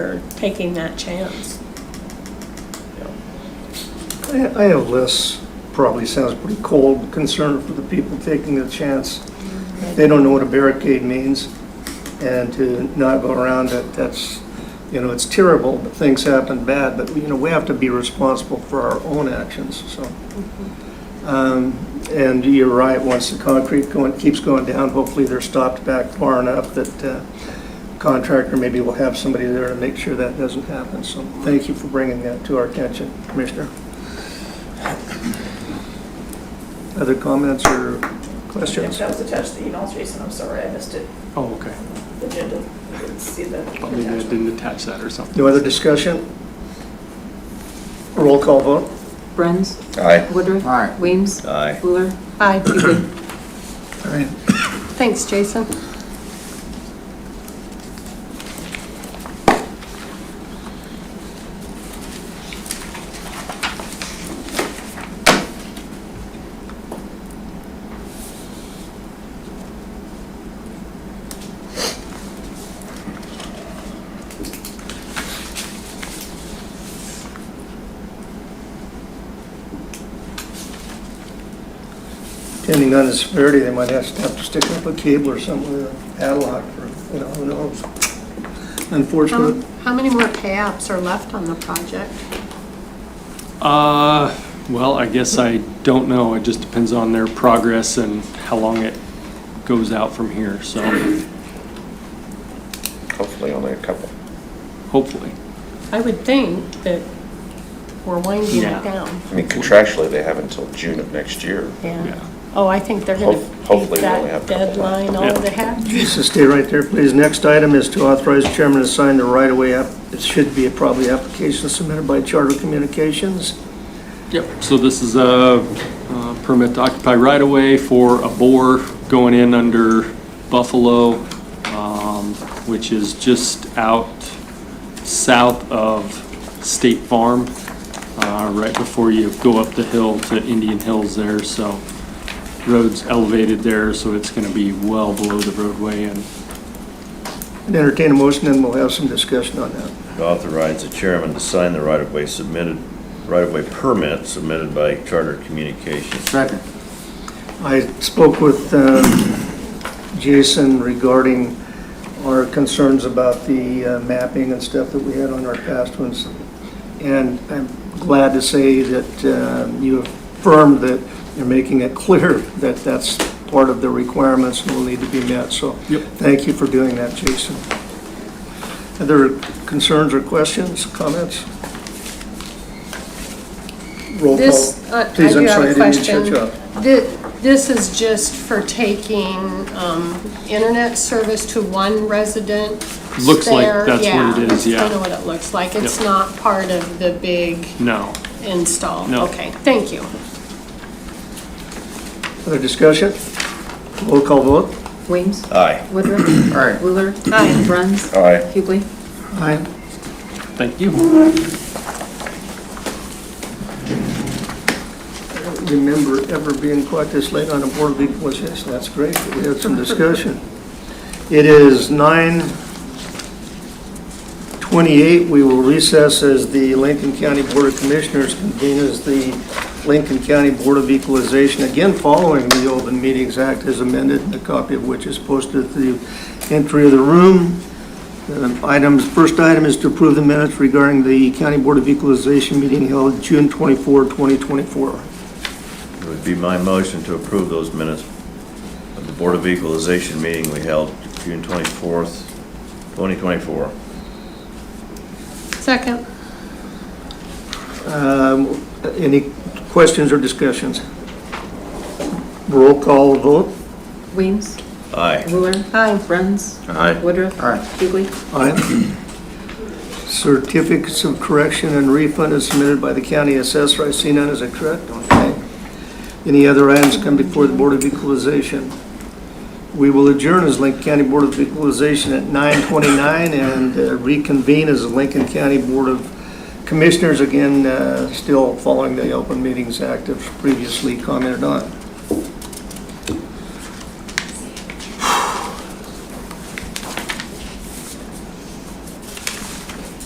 for taking that chance. I I have less, probably sounds pretty cold, concern for the people taking the chance. They don't know what a barricade means, and to not go around it, that's, you know, it's terrible, but things happen bad, but, you know, we have to be responsible for our own actions, so. Um, And you're right, once the concrete going, keeps going down, hopefully they're stopped back far enough that uh, contractor maybe will have somebody there to make sure that doesn't happen, so thank you for bringing that to our attention, Commissioner. Other comments or If questions? that was attached to the emails, Jason, I'm sorry, I missed it. Oh, okay. Agenda, I didn't see the Maybe I attachment. didn't attach that or something. No other discussion? Roll call vote? Bruns, Aye. Woodruff. Aye. Weems. Aye. Wheeler. Aye. Hubig. All right. Thanks, Jason. Depending on the severity, they might have to have to stick up a cable or something with a padlock or, you know, who knows? How Um, Unfortunate. how many more pay-apps are left on the project? Uh, well, I guess I don't know. It just depends on their progress and how long it goes out from here, so Hopefully only a couple. hopefully. I would think that we're winding Yeah. it down. I mean, contractually, they have until June of next year. Yeah. Yeah. Oh, I think they're gonna Hope- hopefully beat we only that have a couple deadline all Yeah. they have. So stay right there, please. Next item is to authorize chairman to sign the right-of-way app. It should be a probably application submitted by Charter Communications. Yep, so this is a uh, permit to occupy right-of-way for a bore going in under Buffalo, um, which is just out south of State Farm, uh, right before you go up the hill to Indian Hills there, so road's elevated there, so it's gonna be well below the roadway and Entertain a motion, and we'll have some discussion on that. authorize the chairman to sign the right-of-way submitted, right-of-way permit submitted by Charter Communications. Second. I spoke with um, Jason regarding our concerns about the uh, mapping and stuff that we had on our past ones. And I'm glad to say that um, you affirmed that you're making it clear that that's part of the requirements and will need to be met. So Yep. thank you for doing that, Jason. Other concerns or questions, comments? Roll This, call. uh, I Please, do I'm have sorry, I a didn't mean to shut question. you up. Thi- This is just for taking um, internet service to one resident? Looks like there? that's what it is, yeah. I know what it looks like. It's Yep. not part of the big no. install? No. Okay, thank you. Other discussion? Roll call vote. Weems. Aye. Woodruff. Aye. Wheeler. Aye. Bruns. Aye. Hubig. Aye. Thank you. I don't remember ever being quite this late on a board meeting, was this, that's great, we had some discussion. It is nine twenty-eight, we will recess as the Lincoln County Board of Commissioners convene as the Lincoln County Board of Equalization, again following the Open Meetings Act as amended, a copy of which is posted at the entry of the room. Um, Items, first item is to approve the minutes regarding the County Board of Equalization meeting held June 24, 2024. It would be my motion to approve those minutes of the Board of Equalization meeting we held June 24th, 2024. Second. Um, Any questions or discussions? Roll call vote. Weems. Aye. Wheeler. Aye. Bruns. Aye. Woodruff. Aye. Hubig. Aye. Certificates of correction and refund is submitted by the county assessor. I see none, is that correct? Okay. Any other items come before the Board of Equalization? We will adjourn as Lincoln County Board of Equalization at 9:29 and uh, reconvene as the Lincoln County Board of Commissioners, again, uh, still following the Open Meetings Act as previously commented on.